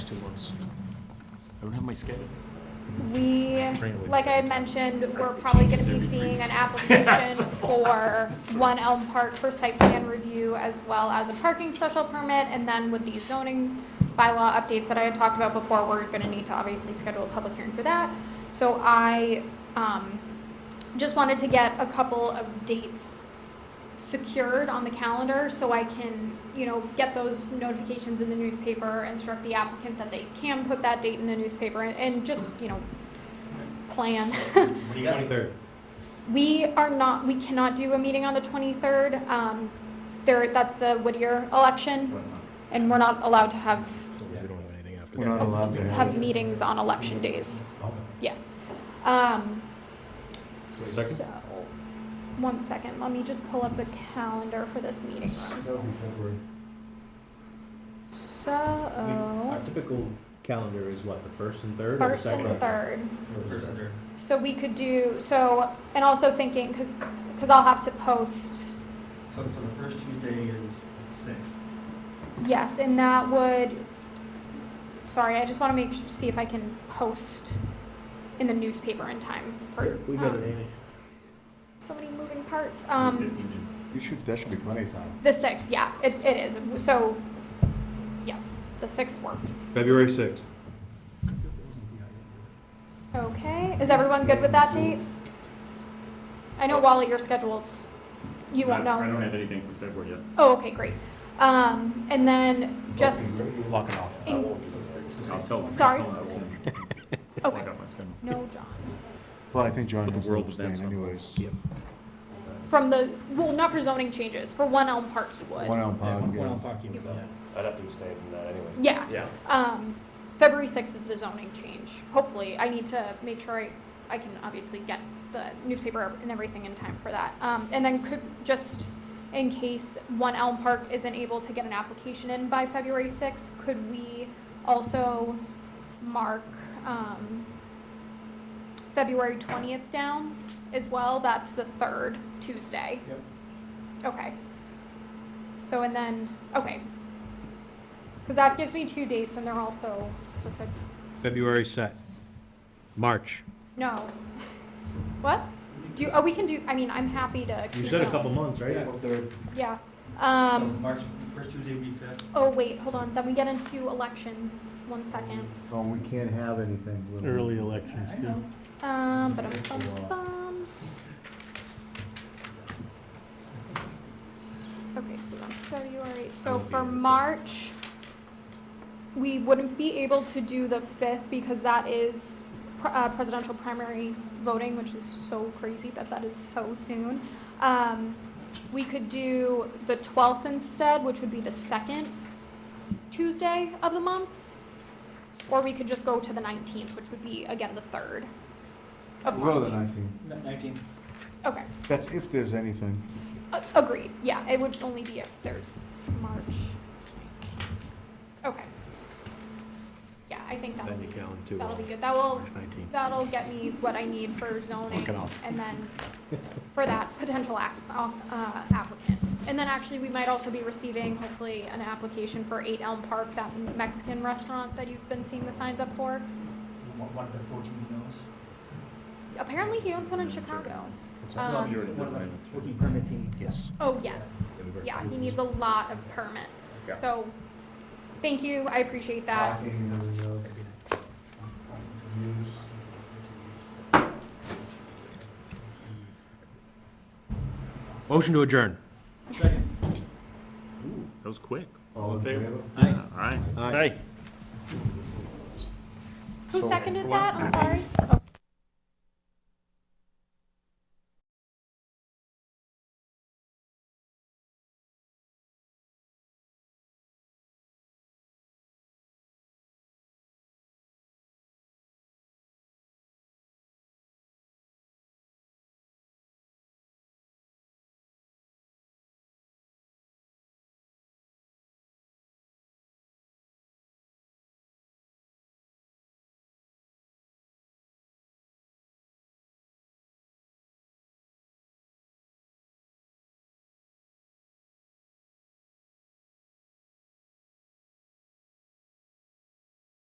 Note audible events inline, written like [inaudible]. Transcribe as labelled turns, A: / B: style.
A: I don't have my schedule.
B: We,
A: Bring it with
B: like I had mentioned, we're probably gonna be seeing an application for One Elm Park for site plan review as well as a parking special permit, and then with the zoning bylaw updates that I had talked about before, we're gonna need to obviously schedule a public hearing for that. So I, um, just wanted to get a couple of dates secured on the calendar so I can, you know, get those notifications in the newspaper, instruct the applicant that they can put that date in the newspaper, and- and just, you know, plan. [laughs]
A: What do you want?
C: Twenty-third.
B: We are not, we cannot do a meeting on the 23rd. Um, There, that's the Whittier election, and we're not allowed to have,
C: We're not allowed to
B: have meetings on election days. Yes. Um,
C: Second?
B: So, one second, let me just pull up the calendar for this meeting room. So,
C: Our typical calendar is what, the first and third? or the
B: first
C: second?
B: and third.
C: First and third.
B: So we could do, so, and also thinking, because, because I'll have to post,
D: So, so the first Tuesday is the sixth.
B: yes, and that would, sorry, I just want to make, see if I can post in the newspaper in time for,
C: We got it,
B: um,
C: Amy.
B: so many moving parts. Um,
A: Fifteen minutes.
E: You should, that should be plenty of time.
B: the sixth, yeah, it, it is. So, yes, the sixth works.
C: February sixth.
B: Okay, is everyone good with that date? I know Wally, your schedule's, you won't
A: I
B: know.
A: don't have anything for February yet.
B: Oh, okay, great. Um, and then just,
E: Locking off.
B: in-
A: I'll tell them.
B: Sorry.
A: I'll tell them I will.
B: okay,
A: Lock up my schedule.
B: no, John.
E: Well, I think John
A: But the
E: has to
A: world was
E: abstain
A: that stuff.
E: anyways.
B: From the, well, not for zoning changes, for One Elm Park he
E: One
B: would.
E: on pod, yeah.
D: parking
B: was up.
F: I'd have to abstain from that anyway.
B: Yeah.
F: Yeah.
B: Um, February sixth is the zoning change, hopefully. I need to make sure I, I can obviously get the newspaper and everything in time for that. Um, and then could, just in case One Elm Park isn't able to get an application in by February sixth, could we also mark, um, February twentieth down as well? That's the third Tuesday. Yep. Okay. So and then, okay, because that gives me two dates and they're also, so Feb-
C: February set. March.
B: no. What? Do, you- oh, we can do, I mean, I'm happy to.
C: You
B: keep
C: said a
B: going.
C: couple months, right?
D: third.
B: Yeah.
D: So
B: Um,
D: March, first Tuesday would be fifth.
B: oh, wait, hold on. Then we get into elections. One second.
E: So we can't have anything. Early elections,
B: Um, but I'm bum, bum. Okay, so that's February. So for March, we wouldn't be able to do the fifth because that is pr- uh, presidential primary voting, which is so crazy that that is so soon. Um, we could do the twelfth instead, which would be the second Tuesday of the month. Or we could just go to the nineteenth, which would be again the third of
E: We'll go to
B: March.
E: the nineteenth.
D: Nineteenth.
B: Okay.
E: That's if there's anything.
B: A- Agreed, yeah, it would only be if there's March 19th. Okay. Yeah, I think that'll
C: Then you
B: be,
C: count to
B: that'll
C: uh,
B: be good. That will,
C: March nineteenth.
B: that'll get me what I need for zoning.
C: Knock it off.
B: And then for that potential app- uh, applicant. And then actually, we might also be receiving hopefully an application for 8 Elm Park, that Mexican restaurant that you've been seeing the signs up for.
D: One one of the fourteen knows.
B: Apparently, he owns one in Chicago.
D: No,
B: Um,
A: you're in a
D: One of
A: good
D: the
A: minutes.
D: fourteen permittees.
E: Yes.
B: Oh, yes. Yeah, he needs a lot of permits. So, thank you, I appreciate that.
C: Motion to adjourn.
D: Second.
A: That was quick.
E: All in favor?
D: Aye.
A: All right.
C: Aye.
B: Who
E: So-
B: seconded that? I'm sorry. Oh.